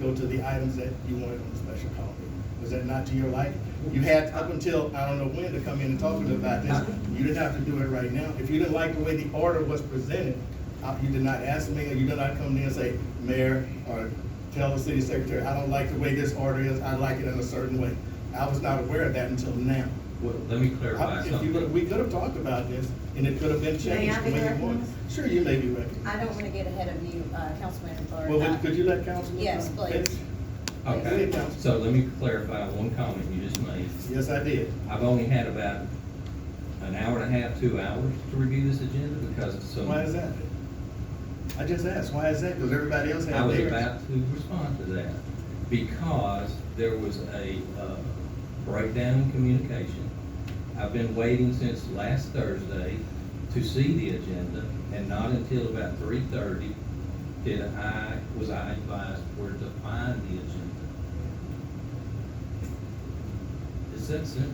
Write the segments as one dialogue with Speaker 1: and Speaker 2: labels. Speaker 1: go to the items that you wanted on the special call meeting. Was that not to your liking? You had up until, I don't know when, to come in and talk to them about this. You didn't have to do it right now. If you didn't like the way the order was presented, uh, you did not ask me, or you did not come in and say, Mayor, or tell the city secretary, I don't like the way this order is, I like it in a certain way. I was not aware of that until now.
Speaker 2: Well, let me
Speaker 1: I-
Speaker 2: clarify
Speaker 1: If you, would-
Speaker 2: something.
Speaker 1: we could have talked about this, and it could have been
Speaker 3: May I
Speaker 1: changed the
Speaker 3: be
Speaker 1: way you wanted.
Speaker 3: recognized?
Speaker 1: Sure, you may be recognized.
Speaker 3: I don't want to get ahead of you, uh, Councilman Clark.
Speaker 1: Well, would- could you let Councilman?
Speaker 3: Yes,
Speaker 1: Brown
Speaker 3: please.
Speaker 1: finish?
Speaker 2: Okay, so let me clarify one comment you just made.
Speaker 1: Yes, I did.
Speaker 2: I've only had about an hour and a half, two hours to review this agenda because of some.
Speaker 1: Why is that? I just asked, why is that? Because everybody else
Speaker 2: I
Speaker 1: had
Speaker 2: was
Speaker 1: theirs.
Speaker 2: about to respond to that, because there was a uh, breakdown in communication. I've been waiting since last Thursday to see the agenda, and not until about three thirty did I, was I advised where to find the agenda. It's that simple.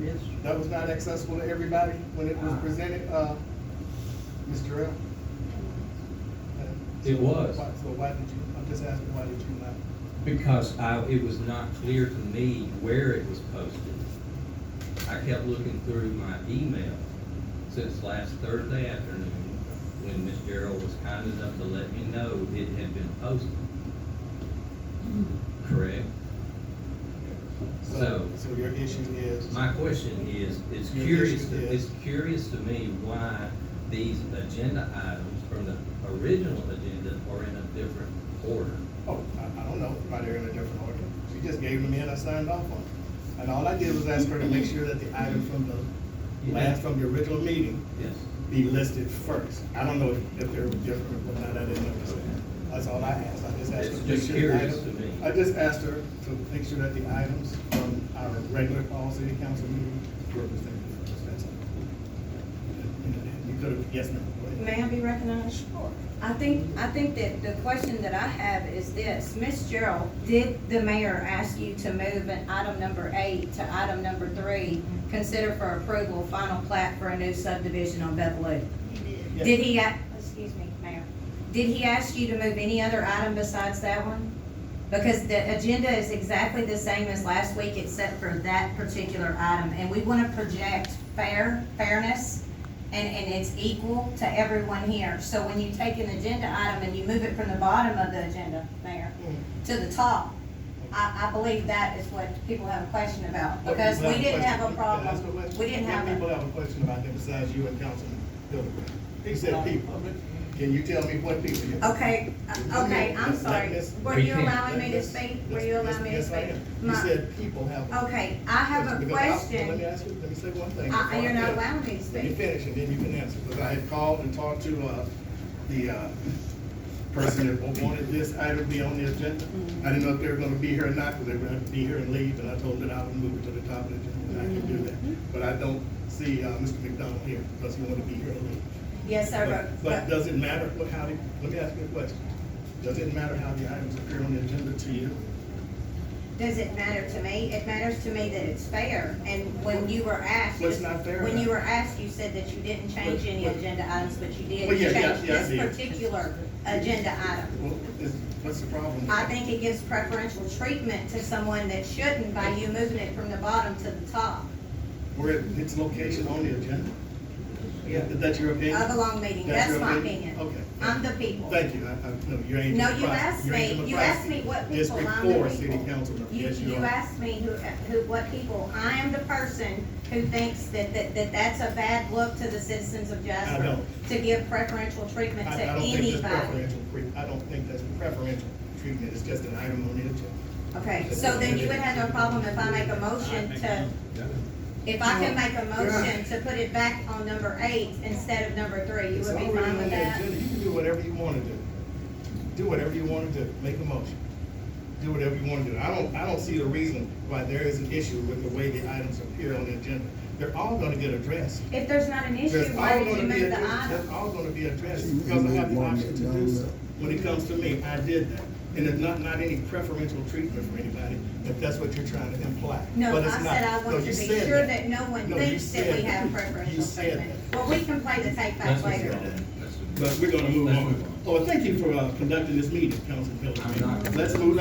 Speaker 4: Yes.
Speaker 1: That was not accessible to everybody when it was
Speaker 2: Ah.
Speaker 1: presented, uh, Mr. L.
Speaker 2: It was.
Speaker 1: So why did you, I'm just asking, why did you not?
Speaker 2: Because I, it was not clear to me where it was posted. I kept looking through my email since last Thursday afternoon, when Ms. Gerald was kind enough to let me know it had been posted. Correct? So-
Speaker 1: So your issue is,
Speaker 2: My question is, it's
Speaker 1: Your
Speaker 2: curious,
Speaker 1: issue
Speaker 2: to-
Speaker 1: is-
Speaker 2: it's curious to me why these agenda items from the original agenda are in a different order.
Speaker 1: oh, I, I don't know, why they're in a different order. She just gave them in, I signed off on it. And all I did was ask her to make sure that the item from the,
Speaker 2: Yeah.
Speaker 1: last from the original meeting
Speaker 2: Yes.
Speaker 1: be listed first. I don't know if they're different or not, I didn't understand. That's all I asked, I just asked her.
Speaker 2: It's
Speaker 1: to make
Speaker 2: just
Speaker 1: sure the
Speaker 2: curious
Speaker 1: item-
Speaker 2: to me.
Speaker 1: I just asked her to make sure that the items from our regular fall city council meeting were presented first, that's all. You could have, yes, ma'am. go ahead.
Speaker 3: May I be recognized? Sure. I think, I think that the question that I have is this, Ms. Gerald, did the mayor ask you to move an item number eight to item number three? Consider for approval, final plat for a new subdivision on Bevelou?
Speaker 1: Yes.
Speaker 3: Did he, a- excuse me, Mayor, did he ask you to move any other item besides that one? Because the agenda is exactly the same as last week except for that particular item. And we want to project fair, fairness, and, and it's equal to everyone here. So when you take an agenda item and you move it from the bottom of the agenda, Mayor,
Speaker 1: Mm.
Speaker 3: to the top, I, I believe that is what people have a question about. Because
Speaker 1: People
Speaker 3: we didn't have a
Speaker 1: question. Can I ask
Speaker 3: problem,
Speaker 1: question?
Speaker 3: we didn't
Speaker 1: What
Speaker 3: have
Speaker 1: People
Speaker 3: a,
Speaker 1: have a question about that besides you and Councilman Hildebrand. He said people. Can you tell me what people? you-
Speaker 3: okay, uh, okay, I'm sorry. Were you allowing me to speak? Were you allowing me to
Speaker 1: Yes,
Speaker 3: speak?
Speaker 1: ma'am. You
Speaker 3: My- Oh,
Speaker 1: said people have. a-
Speaker 3: Okay, I have
Speaker 1: Because I- Let
Speaker 3: a
Speaker 1: me
Speaker 3: question.
Speaker 1: ask you, let me say one thing.
Speaker 3: Uh,
Speaker 1: before
Speaker 3: you're not
Speaker 1: finish.
Speaker 3: allowing me
Speaker 1: Let
Speaker 3: to
Speaker 1: me
Speaker 3: speak.
Speaker 1: finish and then you can answer, because I had called and talked to, uh, the, uh, person that wanted this item to be on the agenda. I didn't know if they were gonna be here or not, because they were gonna be here and leave, and I told them that I would move it to the top of the agenda, and I can do that.
Speaker 3: Mm-hmm.
Speaker 1: But I don't see, uh, Mr. McDonald here, because he wanted to be here and leave.
Speaker 3: Yes, sir,
Speaker 1: But- But
Speaker 3: but, but
Speaker 1: does it matter what, how, the- let me ask you a question. Does it matter how the items appear on the agenda to you?
Speaker 3: does it matter to me? It matters to me that it's fair, and when you were asked.
Speaker 1: Well, it's not fair
Speaker 3: When
Speaker 1: enough.
Speaker 3: you were asked, you said that you didn't change any
Speaker 1: Well,
Speaker 3: agenda items, but you did
Speaker 1: Well, yeah,
Speaker 3: change
Speaker 1: yeah, yeah, I
Speaker 3: this
Speaker 1: did.
Speaker 3: particular agenda item.
Speaker 1: Well, is, what's the problem? with
Speaker 3: I
Speaker 1: that?
Speaker 3: think it gives preferential treatment to someone that shouldn't by you moving it from the bottom to the top
Speaker 1: Where it- its location on the agenda?
Speaker 4: Yeah.
Speaker 1: Is that your opinion?
Speaker 3: of a long meeting.
Speaker 1: That's
Speaker 3: That's
Speaker 1: your
Speaker 3: my
Speaker 1: opinion?
Speaker 3: opinion.
Speaker 1: Okay.
Speaker 3: I'm the people.
Speaker 1: Thank you, I, I, no, you ain't.
Speaker 3: No,
Speaker 1: from
Speaker 3: you
Speaker 1: Christ.
Speaker 3: asked
Speaker 1: You ain't
Speaker 3: me-
Speaker 1: from
Speaker 3: you
Speaker 1: Christ.
Speaker 3: asked me what people,
Speaker 1: District
Speaker 3: I'm the
Speaker 1: four,
Speaker 3: people.
Speaker 1: city councilman,
Speaker 3: You,
Speaker 1: yes, you
Speaker 3: you
Speaker 1: are.
Speaker 3: asked me who, who, what people, I am the person who thinks that, that, that that's a bad look to the citizens of Jasper.
Speaker 1: don't.
Speaker 3: To give preferential treatment
Speaker 1: I,
Speaker 3: to
Speaker 1: I don't think that's
Speaker 3: anybody.
Speaker 1: preferential, pre- I don't think that's preferential treatment, it's just an item on the agenda.
Speaker 3: Okay, so then you would have no problem if I make a motion to, if I can make a motion to put it back on number eight instead of number three, you
Speaker 1: It's
Speaker 3: would be
Speaker 1: already
Speaker 3: fine
Speaker 1: on
Speaker 3: with
Speaker 1: the
Speaker 3: that?
Speaker 1: agenda. You can do whatever you wanna do, do whatever you wanna do, make a motion, do whatever you wanna do. I don't, I don't see the reason why there is an issue with the way the items appear on the agenda. They're all gonna get addressed.
Speaker 3: If there's not an issue,
Speaker 1: That's all
Speaker 3: why did you
Speaker 1: gonna be
Speaker 3: move the
Speaker 1: addressed,
Speaker 3: item?
Speaker 1: that's all gonna be addressed, because I have the option to do so. When it comes to me, I did that, and it's not, not any preferential treatment for anybody, if that's what you're trying to imply.
Speaker 3: No, I
Speaker 1: But it's not.
Speaker 3: said I
Speaker 1: No,
Speaker 3: want to
Speaker 1: you
Speaker 3: be
Speaker 1: said
Speaker 3: sure that no one
Speaker 1: No, you
Speaker 3: thinks that we
Speaker 1: said
Speaker 3: have
Speaker 1: that. You
Speaker 3: preferential
Speaker 1: said
Speaker 3: treatment. Well, we can play the take back
Speaker 2: That's what
Speaker 3: later.
Speaker 2: y'all- that's what-
Speaker 1: But we're gonna move
Speaker 2: Let's
Speaker 1: on.
Speaker 2: move on.
Speaker 1: Oh, thank you for, uh, conducting this meeting, Councilman
Speaker 2: I'm not-
Speaker 1: Hilton. Let's move,